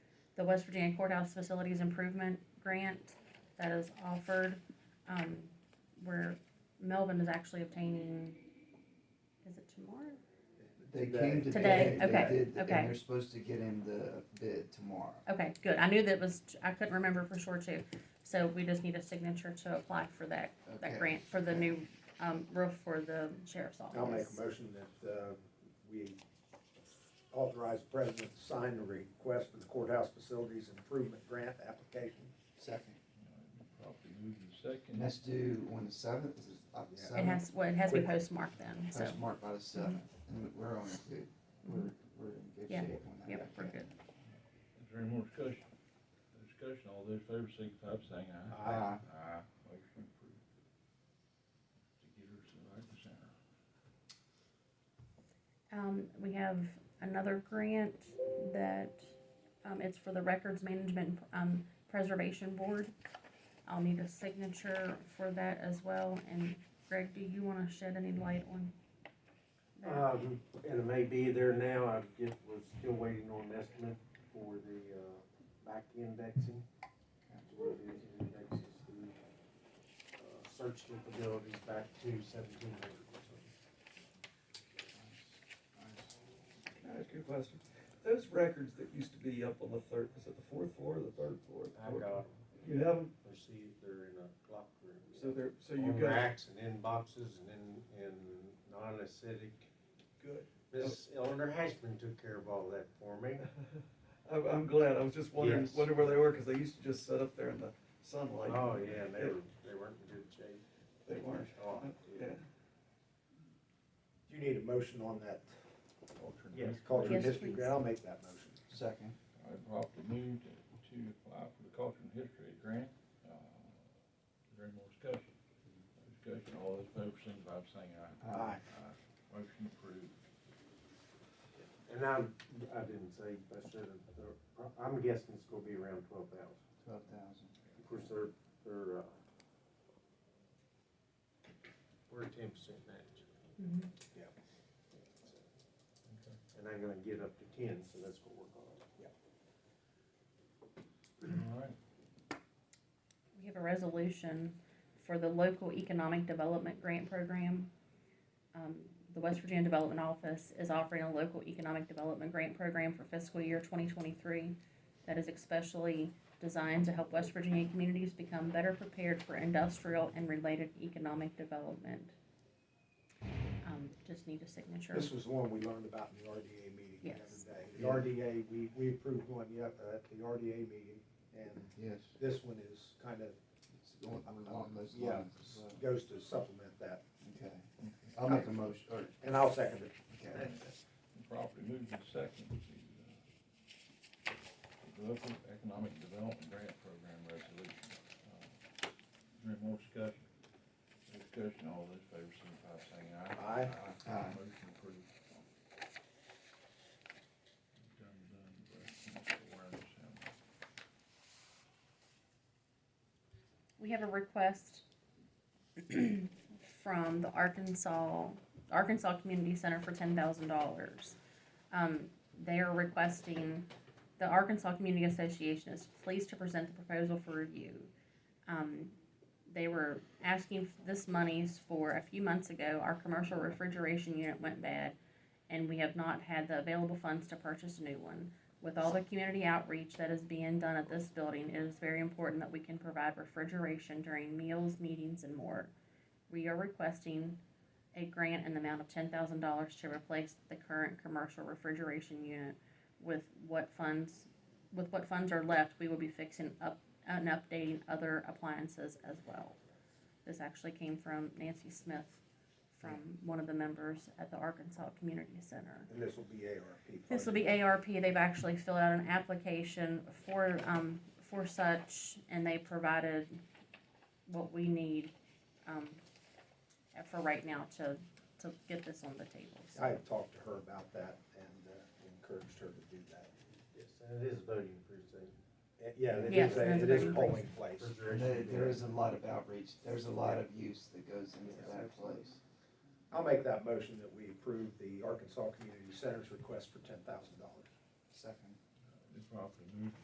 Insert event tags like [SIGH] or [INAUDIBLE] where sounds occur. the West Virginia Courthouse Facilities Improvement Grant that is offered. Um, where Melvin is actually obtaining, is it tomorrow? They came Today, today. they okay, did, And okay. they're supposed to get in the bid tomorrow. Okay, good. I knew that was, I couldn't remember for sure too. So we just need a signature to apply for that, Okay. that grant for the new, um, roof for the sheriff's office. I'll make a motion that, uh, we authorize the president to sign the request for the courthouse facilities improvement grant application. Second. Probably move to second. And that's due on the seventh, is it uh, the Yeah. It It seventh? has, well, it has to be postmarked then, so, Mm-hmm. That's marked by the seventh, and we're on it, dude. We're, we're in good Yeah. shape on that. yep, we're good. Is there any more discussion? Discussion, all those in favor signify by saying aye. Aye. Aye. Motion approved. To get her to the right to center. Um, we have another grant that, um, it's for the Records Management, um, Preservation Board. I'll need a signature for that as well, and Greg, do you wanna shed any light on? that? Um, and it may be there now, I just was still waiting on an estimate for the, uh, back indexing. That's what it is, it indexes the, uh, search capabilities back to seventeen hundred or something. Can I ask you a question? Those records that used to be up on the third, is it the fourth floor or the third floor? I got You have them, them, see, they're in a clock so room. they're, so you On got, racks and in boxes and in, in non-acidic. good. Miss Eleanor Hashman took care of all that for me. I'm, I'm glad, I was just wondering, Yes. wondering where they were, cause they used to just sit up there in the sunlight. Oh, yeah, and they were, they weren't in good shape. They weren't, Oh, yeah. yeah. You need a motion on that Culture and Yes, history. culture and Yes, history please. grant, I'll make that motion. Second, I properly moved to apply for the culture and history grant. Uh, Is there any more discussion? No Discussion, all those in favor signify by saying aye. Aye. Aye. Motion approved. And I, I didn't say, I should have, I'm guessing it's gonna be around twelve thousand. twelve thousand. Of course, they're, they're, uh. We're a ten percent match, Mhm. and I'm gonna get up to ten, so that's what we're going. All right. We have a resolution for the local economic development grant program. Um, the West Virginia Development Office is offering a local economic development grant program for fiscal year twenty twenty-three that is especially designed to help West Virginia communities become better prepared for industrial and related economic development. Um, just need a signature. This was one we learned about in the RDA meeting the Yes. other day. The RDA, we, we approved one yet, uh, at the RDA meeting, and Yes, Um, this one is kind of, it's on, along those Yeah. lines as well. goes to supplement that, Okay, I'll make a motion, or, and I'll second it. okay, Properly moved and seconded to, uh, the local economic development grant program resolution. Uh, Is there any more discussion? No Discussion, all those in favor signify by saying aye. Aye. Aye. Motion approved. Done, done, but awareness, um, We have a request [CLEARS THROAT] from the Arkansas, Arkansas Community Center for ten thousand dollars. Um, they are requesting, the Arkansas Community Association is pleased to present the proposal for review. Um, they were asking f- this monies for a few months ago, our commercial refrigeration unit went bad, and we have not had the available funds to purchase a new one. With all the community outreach that is being done at this building, it is very important that we can provide refrigeration during meals, meetings, and more. We are requesting a grant in the amount of ten thousand dollars to replace the current commercial refrigeration unit with what funds, with what funds are left, we will be fixing up and updating other appliances as well. This actually came from Nancy Smith, from one of the members at the Arkansas Community Center. And this will be ARP. This will be funding. ARP, they've actually filled out an application for, um, for such, and they provided what we need, um, for right now to, to get this on the table, so. I had talked to her about that and uh, encouraged her to do that. Yes, and it is voting precinct. And, Yeah, it Yes, is, a- that's it a is great polling place. And there, Refrigeration there unit. is a lot of outreach, there's a lot of use that goes into Yes, that absolutely. place. I'll make that motion that we approve the Arkansas Community Center's request for ten thousand dollars. Second. They properly moved